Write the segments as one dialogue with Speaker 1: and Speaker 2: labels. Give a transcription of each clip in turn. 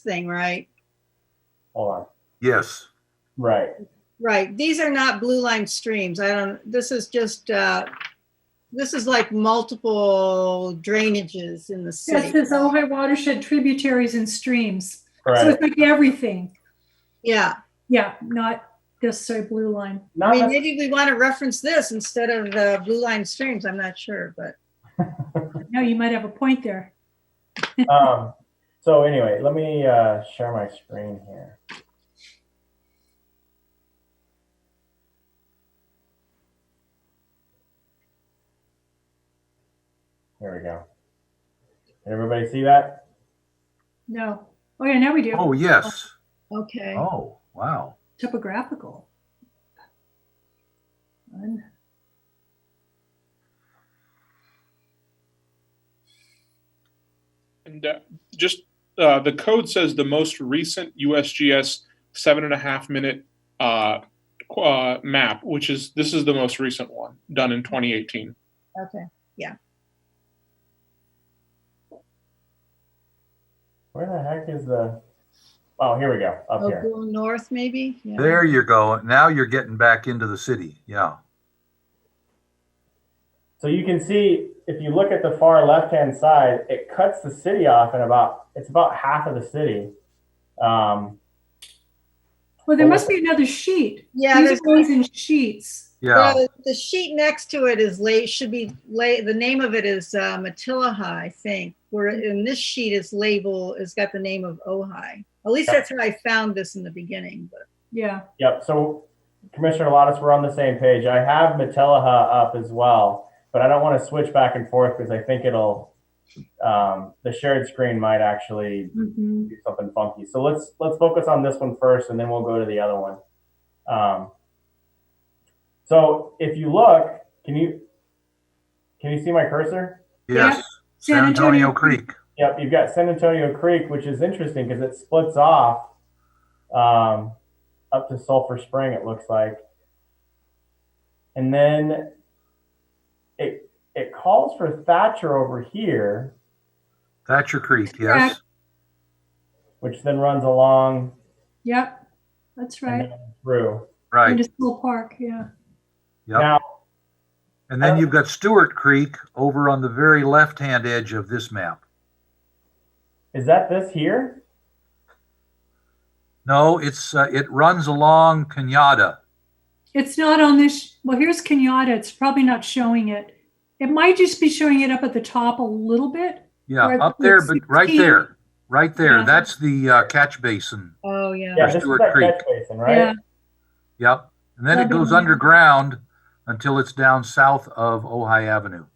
Speaker 1: thing, right?
Speaker 2: Are.
Speaker 3: Yes,
Speaker 2: Right.
Speaker 1: Right. These are not blue line streams. I don't, this is just, uh, this is like multiple drainages in the
Speaker 4: This
Speaker 1: city.
Speaker 4: is Ojai watershed tributaries and streams. So
Speaker 2: Right.
Speaker 4: it's like everything.
Speaker 1: Yeah.
Speaker 4: Yeah, not this so blue line.
Speaker 1: I
Speaker 2: Not
Speaker 1: mean,
Speaker 2: necess-
Speaker 1: maybe we want to reference this instead of the blue line streams. I'm not sure, but
Speaker 4: No, you might have a point there.
Speaker 2: um, so anyway, let me uh, share my screen here. Here we go. Did everybody see that?
Speaker 4: No. Oh yeah, now we do.
Speaker 3: oh, yes,
Speaker 1: okay.
Speaker 3: oh, wow.
Speaker 4: Topographical. Fun.
Speaker 5: And uh, just uh, the code says the most recent USGS seven and a half minute uh, qu- uh, map, which is this is the most recent one done in 2018.
Speaker 1: Okay.
Speaker 2: Where the heck is the? Oh, here we go. Up
Speaker 1: Oh,
Speaker 2: here.
Speaker 1: Google North, maybe? Yeah.
Speaker 3: There you go. Now you're getting back into the city. Yeah.
Speaker 2: So you can see if you look at the far left hand side, it cuts the city off in about it's about half of the city. Um,
Speaker 4: Well, there must be another sheet.
Speaker 1: Yeah,
Speaker 4: These
Speaker 1: there's,
Speaker 4: are always in sheets.
Speaker 3: Yeah.
Speaker 1: well, the sheet next to it is lay, should be lay, the name of it is uh, Matilahi, I think, where in this sheet is label, is got the name of Ojai. At least that's how I found this in the beginning, but
Speaker 4: Yeah.
Speaker 2: Yep. So, Commissioner Lottis, we're on the same page. I have Metellaha up as well, but I don't want to switch back and forth because I think it'll um, the shared screen might actually
Speaker 4: Mhm.
Speaker 2: do something funky. So let's let's focus on this one first, and then we'll go to the other one. Um, so if you look, can you can you see my cursor?
Speaker 3: Yes. San Antonio Creek.
Speaker 2: Yep, you've got San Antonio Creek, which is interesting because it splits off um, up to Sulphur Spring, it looks like. And then it it calls for Thatcher over here,
Speaker 3: Thatcher Creek. Yes.
Speaker 2: which then runs along
Speaker 4: Yep. That's
Speaker 2: and
Speaker 4: right.
Speaker 2: then through.
Speaker 3: Right.
Speaker 4: Into School Park. Yeah.
Speaker 3: Yep.
Speaker 2: Now,
Speaker 3: And then you've got Stewart Creek over on the very left hand edge of this map.
Speaker 2: is that this here?
Speaker 3: No, it's uh, it runs along Kenyatta.
Speaker 4: It's not on this. Well, here's Kenyatta. It's probably not showing it. It might just be showing it up at the top a little bit.
Speaker 3: Yeah,
Speaker 4: Right,
Speaker 3: up there,
Speaker 4: it's
Speaker 3: but right
Speaker 4: 16.
Speaker 3: there, right there.
Speaker 4: Yeah.
Speaker 3: That's the uh, catch basin.
Speaker 1: oh, yeah.
Speaker 2: Yeah, this
Speaker 3: Stewart
Speaker 2: is that
Speaker 3: Creek.
Speaker 2: catch basin, right?
Speaker 4: Yeah.
Speaker 3: Yep. And then it
Speaker 4: That'd be
Speaker 3: goes
Speaker 4: nice.
Speaker 3: underground until it's down south of Ojai Avenue.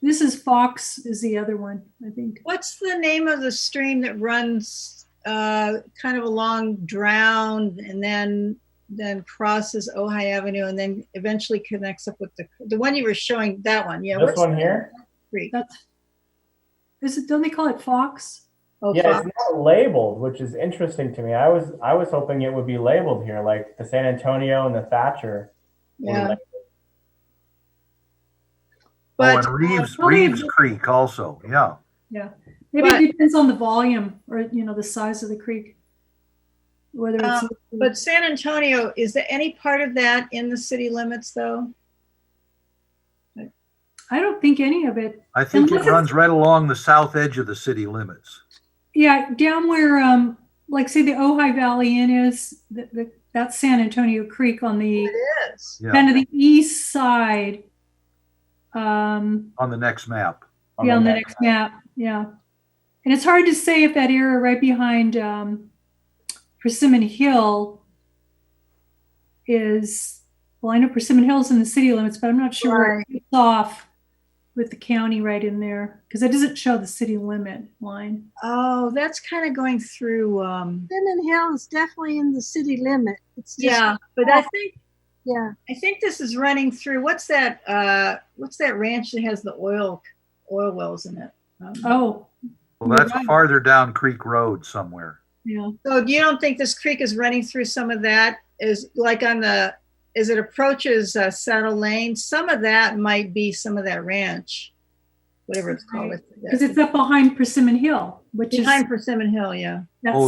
Speaker 4: This is Fox is the other one, I think.
Speaker 1: What's the name of the stream that runs uh, kind of along Drown and then then crosses Ojai Avenue and then eventually connects up with the the one you were showing that one yeah
Speaker 2: this
Speaker 1: what's
Speaker 2: one
Speaker 1: the
Speaker 2: here?
Speaker 1: creek?
Speaker 4: That's is it don't they call it Fox?
Speaker 1: Oh,
Speaker 2: Yeah,
Speaker 1: fuck.
Speaker 2: it's not labeled, which is interesting to me. I was I was hoping it would be labeled here, like the San Antonio and the Thatcher. were
Speaker 1: yeah.
Speaker 2: labeled.
Speaker 1: but
Speaker 3: oh, and Reeves
Speaker 4: uh, probably-
Speaker 3: Reeves Creek also. Yeah.
Speaker 4: Maybe
Speaker 1: But-
Speaker 4: it depends on the volume or you know, the size of the creek. Whether it's
Speaker 1: Um, but San Antonio is there any part of that in the city limits though
Speaker 4: I don't think any of it.
Speaker 3: I think it
Speaker 4: Unless it's-
Speaker 3: runs right along the south edge of the city limits.
Speaker 4: Yeah, down where um like say the Ojai Valley Inn is, the, the, that's San Antonio Creek on the
Speaker 1: it is
Speaker 3: Yeah,
Speaker 4: kind of the east side. Um
Speaker 3: on the next map.
Speaker 4: yeah, on the next map. Yeah. And it's hard to say if that area right behind um, Persimmon Hill is, well, I know Persimmon Hill's in the city limits, but I'm not sure where it's off with the county right in there because it doesn't show the city limit line.
Speaker 1: oh that's kind of going through um
Speaker 6: Vernon Hill is definitely in the city limit. It's just,
Speaker 1: yeah but I think
Speaker 6: yeah.
Speaker 1: I think this is running through. What's that? Uh, what's that ranch that has the oil oil wells in it? Um,
Speaker 4: Oh,
Speaker 3: Well, that's
Speaker 4: Right.
Speaker 3: farther down Creek Road somewhere.
Speaker 4: yeah.
Speaker 1: So you don't think this creek is running through some of that? Is like on the as it approaches uh, Saddle Lane, some of that might be some of that ranch, whatever it's called. I forget.
Speaker 4: Because it's up behind Persimmon Hill, which
Speaker 1: behind
Speaker 4: is
Speaker 1: Persimmon Hill. Yeah.
Speaker 4: that's
Speaker 3: Oh,